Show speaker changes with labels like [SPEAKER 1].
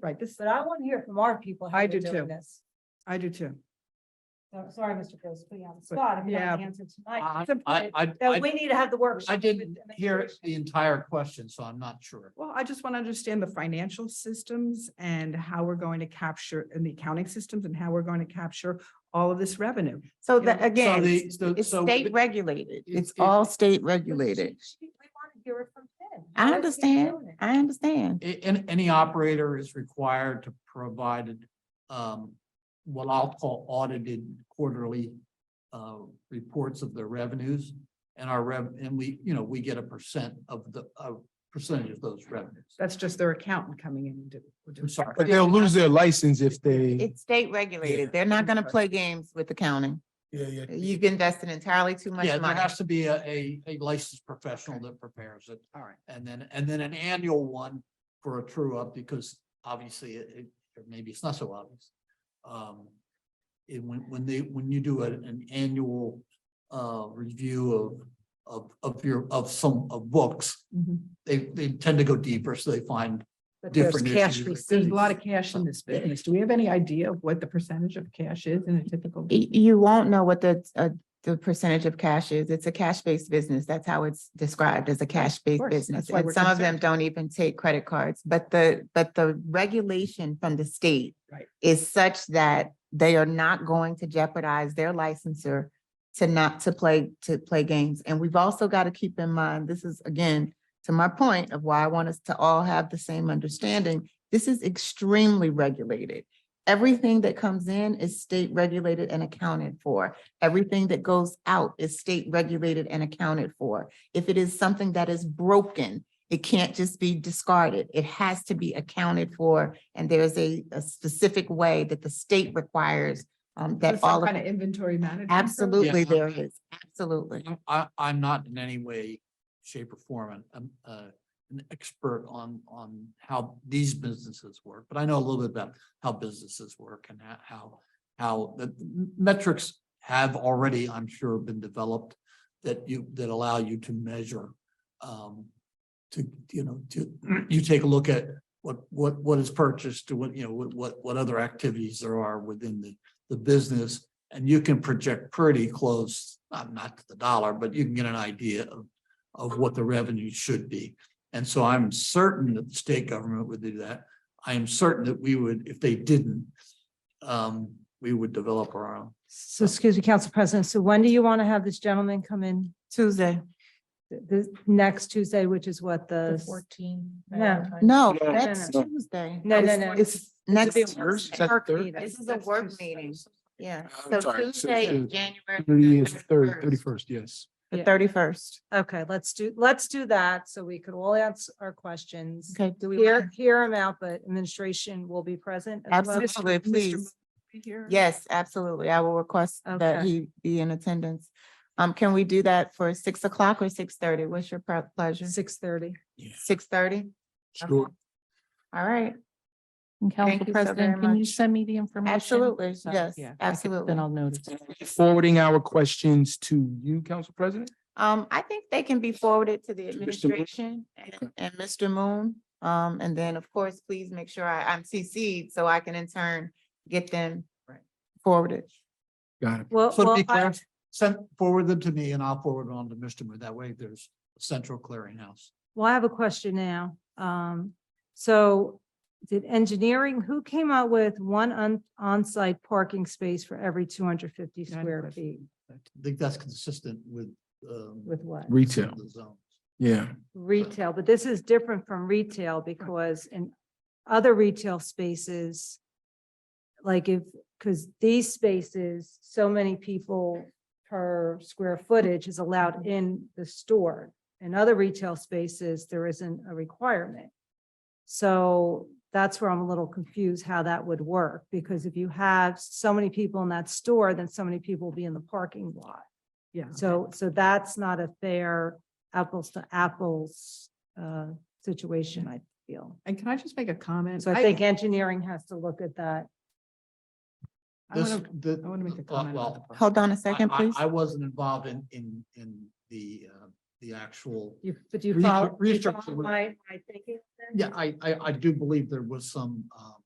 [SPEAKER 1] right, this,
[SPEAKER 2] But I want to hear from our people. how
[SPEAKER 1] I
[SPEAKER 2] they're
[SPEAKER 1] do
[SPEAKER 2] doing
[SPEAKER 1] too.
[SPEAKER 2] this.
[SPEAKER 1] I do too.
[SPEAKER 2] So, Sorry, Mr. Gross, putting you on the spot. I'm
[SPEAKER 1] yeah.
[SPEAKER 2] not answering tonight.
[SPEAKER 3] I,
[SPEAKER 1] Some-
[SPEAKER 3] I, I,
[SPEAKER 2] Uh,
[SPEAKER 3] I-
[SPEAKER 2] We need to have the workshop.
[SPEAKER 3] I didn't
[SPEAKER 2] with the
[SPEAKER 3] hear
[SPEAKER 2] administration.
[SPEAKER 3] the entire question, so I'm not sure.
[SPEAKER 1] Well, I just want to understand the financial systems and how we're going to capture, and the accounting systems and how we're going to capture all of this revenue.
[SPEAKER 4] So
[SPEAKER 1] Yeah.
[SPEAKER 4] that, again,
[SPEAKER 3] the-
[SPEAKER 4] it's
[SPEAKER 3] so-
[SPEAKER 4] it's
[SPEAKER 3] so
[SPEAKER 4] state
[SPEAKER 3] it-
[SPEAKER 4] regulated.
[SPEAKER 3] it-
[SPEAKER 4] It's
[SPEAKER 3] it-
[SPEAKER 4] all state
[SPEAKER 2] But she-
[SPEAKER 4] regulated.
[SPEAKER 2] she- We want to hear it from him. How is
[SPEAKER 4] I
[SPEAKER 2] he
[SPEAKER 4] understand.
[SPEAKER 2] doing it?
[SPEAKER 4] I understand.
[SPEAKER 3] A- and any operator is required to provide, um, what I'll call audited quarterly, uh, reports of their revenues. And our rev, and we, you know, we get a percent of the, a percentage of those revenues.
[SPEAKER 1] That's just their accountant coming in and do. will do
[SPEAKER 3] I'm
[SPEAKER 1] it.
[SPEAKER 3] sorry.
[SPEAKER 5] But they'll lose their license if they.
[SPEAKER 4] It's state regulated. They're not gonna play games with accounting.
[SPEAKER 5] Yeah, yeah.
[SPEAKER 4] You've invested entirely too much
[SPEAKER 3] Yeah, there
[SPEAKER 4] money.
[SPEAKER 3] has to be a, a, a licensed professional that prepares it.
[SPEAKER 1] All right.
[SPEAKER 3] And then, and then an annual one for a true up because obviously it, it- or maybe it's not so obvious. Um, it, when, when they, when you do an, an annual, uh, review of, of, of your, of some, of books,
[SPEAKER 1] Mhm.
[SPEAKER 3] they, they tend to go deeper, so they find,
[SPEAKER 1] But there's
[SPEAKER 3] Different
[SPEAKER 1] cash
[SPEAKER 3] issues.
[SPEAKER 1] receipts. There's a lot of cash in this business. Do we have any idea of what the percentage of cash is in a typical?
[SPEAKER 4] Y- You won't know what the, uh, the percentage of cash is. It's a cash-based business. That's how it's described as a cash-based
[SPEAKER 1] course. That's
[SPEAKER 4] business.
[SPEAKER 1] why
[SPEAKER 4] And
[SPEAKER 1] we're
[SPEAKER 4] some of them
[SPEAKER 1] concerned.
[SPEAKER 4] don't even take credit cards, but the, but the regulation from the state
[SPEAKER 1] Right.
[SPEAKER 4] is such that they are not going to jeopardize their licensor to not, to play, to play games. And we've also got to keep in mind, this is again, to my point of why I want us to all have the same understanding. This is extremely regulated. Everything that comes in is state regulated and accounted for. Everything that goes out is state regulated and accounted for. If it is something that is broken, it can't just be discarded. It has to be accounted for. And there's a, a specific way that the state requires um, that
[SPEAKER 1] Some
[SPEAKER 4] all of.
[SPEAKER 1] Kind of inventory management. program?
[SPEAKER 4] Absolutely,
[SPEAKER 3] Yeah.
[SPEAKER 4] there is, absolutely.
[SPEAKER 3] I'm- I, I'm not in any way, shape or form an, um, uh, an expert on, on how these businesses work, but I know a little bit about how businesses work and ho- how, how the metrics have already, I'm sure, been developed that you, that allow you to measure, um, to, you know, to, you take a look at what, what, what is purchased to what, you know, what, what, what other activities there are within the, the business and you can project pretty close, not, not to the dollar, but you can get an idea of, of what the revenue should be. And so I'm certain that the state government would do that. I am certain that we would, if they didn't, um, we would develop our own.
[SPEAKER 2] So excuse me, Council President, so when do you want to have this gentleman come in?
[SPEAKER 4] Tuesday.
[SPEAKER 2] Th- This next Tuesday, which is what the.
[SPEAKER 4] Fourteen.
[SPEAKER 2] No.
[SPEAKER 4] No,
[SPEAKER 5] No,
[SPEAKER 4] that's
[SPEAKER 5] no.
[SPEAKER 4] Tuesday.
[SPEAKER 2] No, no,
[SPEAKER 4] It's-
[SPEAKER 2] no.
[SPEAKER 4] It's next,
[SPEAKER 5] Is that third?
[SPEAKER 4] this is a work meeting. yeah.
[SPEAKER 5] I'm
[SPEAKER 4] So
[SPEAKER 5] sorry, so
[SPEAKER 4] Tuesday,
[SPEAKER 5] Tuesday.
[SPEAKER 4] is January.
[SPEAKER 5] Thirty is third,
[SPEAKER 4] 31st.
[SPEAKER 5] thirty-first, yes.
[SPEAKER 4] The thirty-first.
[SPEAKER 2] Okay, let's do, let's do that so we could all answer our questions.
[SPEAKER 4] Okay, do we?
[SPEAKER 2] Hear, hear him out, but administration will be present. as well.
[SPEAKER 4] Absolutely,
[SPEAKER 1] Mr. Mo-
[SPEAKER 4] please.
[SPEAKER 1] Be here?
[SPEAKER 4] Yes, absolutely. I will request that
[SPEAKER 2] Okay.
[SPEAKER 4] he be in attendance. Um, can we do that for six o'clock or six thirty? What's your pre- pleasure?
[SPEAKER 2] Six thirty.
[SPEAKER 4] Six thirty?
[SPEAKER 5] Sure.
[SPEAKER 4] All right,
[SPEAKER 6] And Council
[SPEAKER 4] Thank you so very
[SPEAKER 6] President, can you
[SPEAKER 4] much.
[SPEAKER 6] send me the information?
[SPEAKER 4] absolutely,
[SPEAKER 6] So,
[SPEAKER 4] yes,
[SPEAKER 6] yeah, I can-
[SPEAKER 4] absolutely.
[SPEAKER 6] Then I'll notice.
[SPEAKER 4] Uh-huh.
[SPEAKER 5] Forwarding our questions to you, Council President?
[SPEAKER 4] Um, I think they can be forwarded to the
[SPEAKER 5] Mr. Moon?
[SPEAKER 4] administration and, and Mr. Moon. Um, and then, of course, please make sure I, I'm CC'd so I can in turn get them forwarded.
[SPEAKER 5] Got it.
[SPEAKER 2] Well,
[SPEAKER 3] So to
[SPEAKER 2] well,
[SPEAKER 3] be
[SPEAKER 2] I-
[SPEAKER 3] clear, send, forward them to me and I'll forward it on to Mr. Moon. That way there's a central clearinghouse.
[SPEAKER 2] well, I have a question now. Um, so did engineering, who came out with one on, on-site parking space for every two hundred fifty
[SPEAKER 1] Yeah, I have a
[SPEAKER 2] square
[SPEAKER 1] question.
[SPEAKER 2] feet?
[SPEAKER 3] I think that's consistent with, um.
[SPEAKER 2] With what?
[SPEAKER 5] Retail.
[SPEAKER 3] the zones.
[SPEAKER 5] Yeah,
[SPEAKER 2] Retail, but this is different from retail because in other retail spaces, like if, because these spaces, so many people per square footage is allowed in the store. In other retail spaces, there isn't a requirement. So that's where I'm a little confused how that would work, because if you have so many people in that store, then so many people will be in the parking lot.
[SPEAKER 1] Yeah.
[SPEAKER 2] So, so that's not a fair apples to apples uh, situation, I feel.
[SPEAKER 1] And can I just make a comment?
[SPEAKER 2] So I think engineering has to look at that.
[SPEAKER 1] I
[SPEAKER 3] This,
[SPEAKER 1] wanna-
[SPEAKER 3] the. uh,
[SPEAKER 1] I want to make a
[SPEAKER 3] well,
[SPEAKER 1] comment. about
[SPEAKER 3] well,
[SPEAKER 1] the park.
[SPEAKER 4] Hold on a second,
[SPEAKER 3] I- I-
[SPEAKER 4] please.
[SPEAKER 3] I wasn't involved in, in, in the, uh, the actual.
[SPEAKER 2] You, but you
[SPEAKER 3] Research-
[SPEAKER 2] follow, you
[SPEAKER 3] research
[SPEAKER 2] follow
[SPEAKER 3] would-
[SPEAKER 2] my, my thinking? then?
[SPEAKER 3] Yeah, I, I, I do believe there was some, um,